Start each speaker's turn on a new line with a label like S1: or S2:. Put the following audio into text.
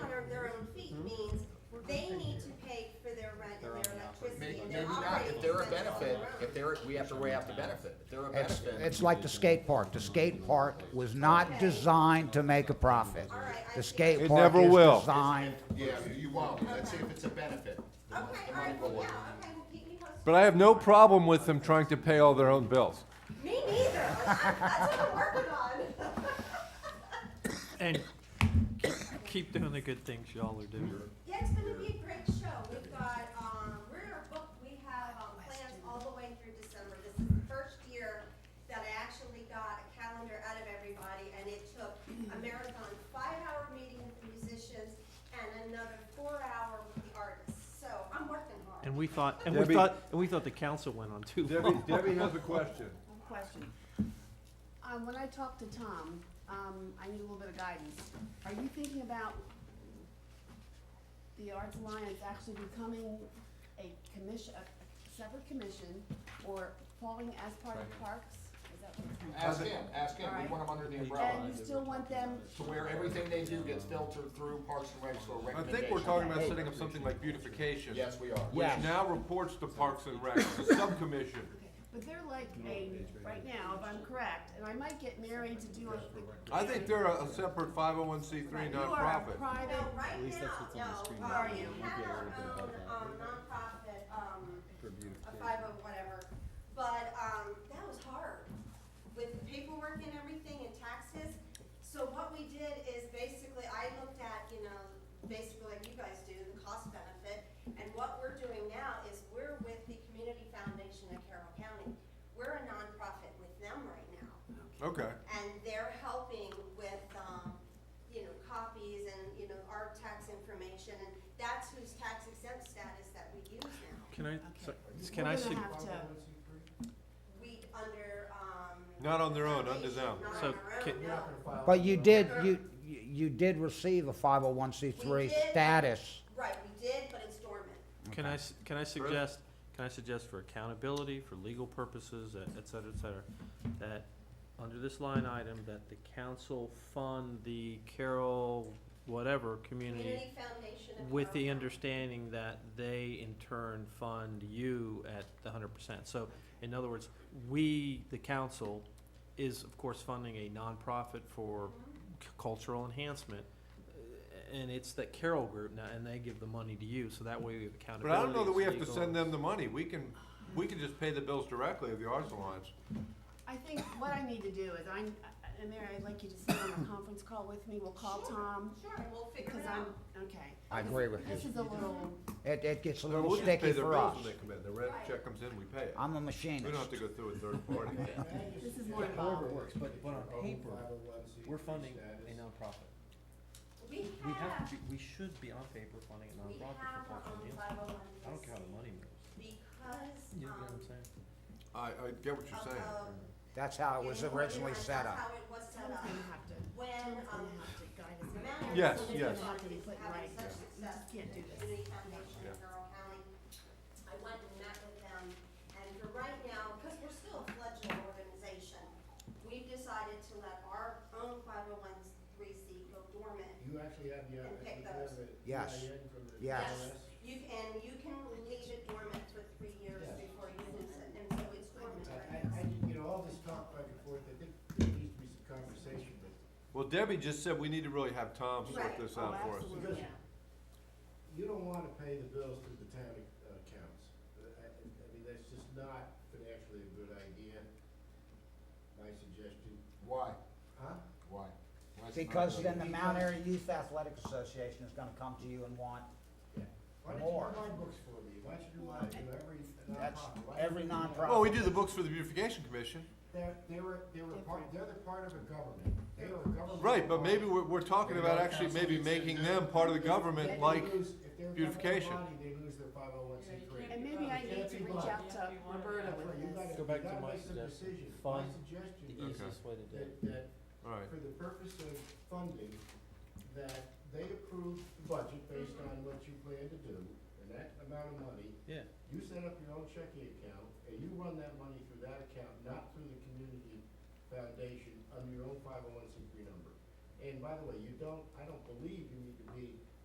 S1: Hmm?
S2: they're, we have to weigh out the benefit. If They're a
S3: It's,
S2: benefit.
S3: it's like the skate park. The skate park was not designed to make a profit. The skate
S4: It
S3: park
S4: never will.
S3: is designed,
S1: Yeah, you won't, let's see if it's a benefit. The
S5: Okay, all
S1: mon- the money
S5: right,
S1: will
S5: well,
S1: work.
S5: yeah, okay, well, keep me posted.
S4: But I have no problem with them trying to pay all their own bills.
S5: Me neither. That's what I'm working on.
S6: And keep doing the good things y'all are doing.
S5: Yeah, it's gonna be a great show. We've got, um, we're booked, we have, um, plans all the way through December. This is the first year that I actually got a calendar out of everybody, and it took a marathon five-hour meeting with the musicians and another four-hour with the artists. So I'm working hard.
S6: And we thought, and
S4: Debbie-
S6: we thought, and we thought the council went on too long.
S4: Debbie, Debbie has a question.
S7: Question. Uh, when I talked to Tom, um, I need a little bit of guidance. Are you thinking about the Arts Alliance actually becoming a commission, a separate commission, or falling as part of parks? Is that what it's called?
S1: Ask him, ask him, we want them under the umbrella.
S7: And you still want them,
S1: To where everything they do gets filtered through Parks and Recs or
S4: I
S1: recommendation.
S4: think we're talking about setting up something like beautification.
S1: Yes, we are.
S4: Which now reports to Parks and Rec, the subcommission.
S7: but they're like a, right now, if I'm correct, and I might get married to do a.
S4: I think they're a a separate five oh one C three
S7: Right, You are a
S5: No,
S4: nonprofit.
S7: private,
S5: right now, no,
S7: Are
S5: um, we
S7: you?
S5: have our own, um, nonprofit, um, a five oh whatever, but, um, that was hard. With the paperwork and everything and taxes, so what we did is basically, I looked at, you know, basically like you guys do, the cost benefit, and what we're doing now is we're with the Community Foundation of Carroll County. We're a nonprofit with them right now
S4: Okay.
S5: and they're helping with, um, you know, copies and, you know, our tax information, and that's whose tax exempt status that we use now.
S6: Can I, so-
S7: we're
S6: can I,
S7: gonna
S6: sug-
S7: have to.
S5: We under, um.
S4: Not on their own, under them.
S5: Not
S6: So
S5: on our
S6: can-
S5: own, no.
S3: but you did, you, you you did receive a five oh one C
S5: We
S3: three
S5: did.
S3: status.
S5: Right, we did, but it's dormant.
S6: can I, s- can I suggest, can I suggest for accountability, for legal purposes, et et cetera, et cetera, that under this line item, that the council fund the Carroll, whatever, community
S5: Community Foundation of.
S6: With the
S5: Carroll
S6: understanding that they in turn fund you at the hundred percent. So in other words, we, the council, is of course funding a nonprofit for
S5: Mm-hmm.
S6: c- cultural enhancement. uh, And it's that Carroll Group now, and they give the money to you, so that way we have
S4: But
S6: accountability.
S4: I don't know that
S6: it's
S4: we have to
S6: legal.
S4: send them the money. We can, we can just pay the bills directly of the Arts Alliance.
S7: I think what I need to do is I'm, and Mary, I'd like you to sit on a conference call with me, we'll call Tom,
S5: Foundation. Sure, and we'll figure
S7: because
S5: it
S7: I'm,
S5: out.
S7: okay.
S3: I agree with
S7: This
S3: you.
S7: is a little,
S3: It, it gets a
S4: No,
S3: little
S4: we'll just pay
S3: sticky
S4: their
S3: for us.
S4: bills when they come in. The rent check comes in, we pay it.
S3: I'm a
S4: We don't
S3: machinist.
S4: have to go through a third party.
S7: this is more involved.
S6: works, but, uh, but on paper, we're funding a nonprofit.
S5: We
S6: We have
S5: have,
S6: to be, we should be on paper funding a
S5: we
S6: nonprofit
S5: have our
S6: for
S5: own
S6: cultural enhancement.
S5: five oh one.
S6: I don't care how the money moves.
S5: Because,
S6: You know what
S5: um,
S6: I'm saying?
S4: I, I get what
S5: of,
S4: you're saying.
S5: of.
S3: That's how it was
S5: getting
S3: originally
S5: organized,
S3: set
S5: that's
S3: up.
S5: How it was set
S7: Tom's
S5: up.
S7: gonna have to,
S5: When,
S7: Tom's
S5: um,
S7: gonna have to guide us.
S5: Matter
S4: Yes,
S5: of the
S7: Tom's
S4: yes.
S7: gonna have to be
S5: is
S7: put
S5: having
S7: right.
S5: such
S7: You
S5: success
S7: just can't do
S5: with
S7: this.
S5: Community Foundation in Carroll County. I went and met with them, and for right now, because we're still a fledgling organization, we've decided to let our own five oh one three C go dormant.
S8: You actually have the, uh,
S5: And pick
S8: you have
S5: those.
S8: the
S3: Yes.
S8: EIN from the
S3: Yes.
S8: IRS?
S5: You can, you can leave it dormant for three years
S8: Yes.
S5: before you lose it, and so it's dormant
S8: I,
S5: right
S8: I,
S5: now.
S8: I, you know, all this talk back and forth, I think there needs to be some conversation, but
S4: Well, Debbie just said we need to really have Tom sort
S5: Right.
S4: this
S7: Oh,
S4: out for us.
S7: absolutely, yeah.
S8: you don't wanna pay the bills through the town ac- uh, accounts. Uh, I, I I mean, that's just not financially a good idea, my suggestion.
S1: Why?
S8: Huh?
S1: Why? Why is it not
S3: Because then
S1: good?
S3: the Mount Airy Youth Athletic Association is gonna come to you and want,
S8: Why don't
S3: More.
S8: you buy books for me? Why don't you do mine, you know, every
S3: that's
S8: nonprofit? Why don't
S3: every
S8: you do mine?
S3: nonprofit.
S4: Well, we do the books for the beautification commission.
S8: They're, they were, they were part, they're the part of a government. They are a government.
S4: Right, but
S8: body.
S4: maybe we're, we're talking about actually maybe making them part of the
S8: If
S4: government,
S8: they
S4: like,
S8: lose- if they're a government
S4: beautification.
S8: body, They lose their five oh one C three.
S7: And maybe I need to reach out to Roberta with
S8: You
S7: this.
S8: gotta, you
S6: Go back to
S8: gotta
S6: my
S8: make some
S6: suggestion.
S8: decisions. My
S6: Fund The
S8: suggestion is
S6: easiest way to do it.
S8: that, that
S4: all right.
S8: for the purpose of funding, that they approve the budget based on what you plan to do, and that amount of money,
S6: Yeah.
S8: you set up your own checking account, and you run that money through that account, not through the community foundation, under your own five oh one C three number. And by the way, you don't, I don't believe you need to be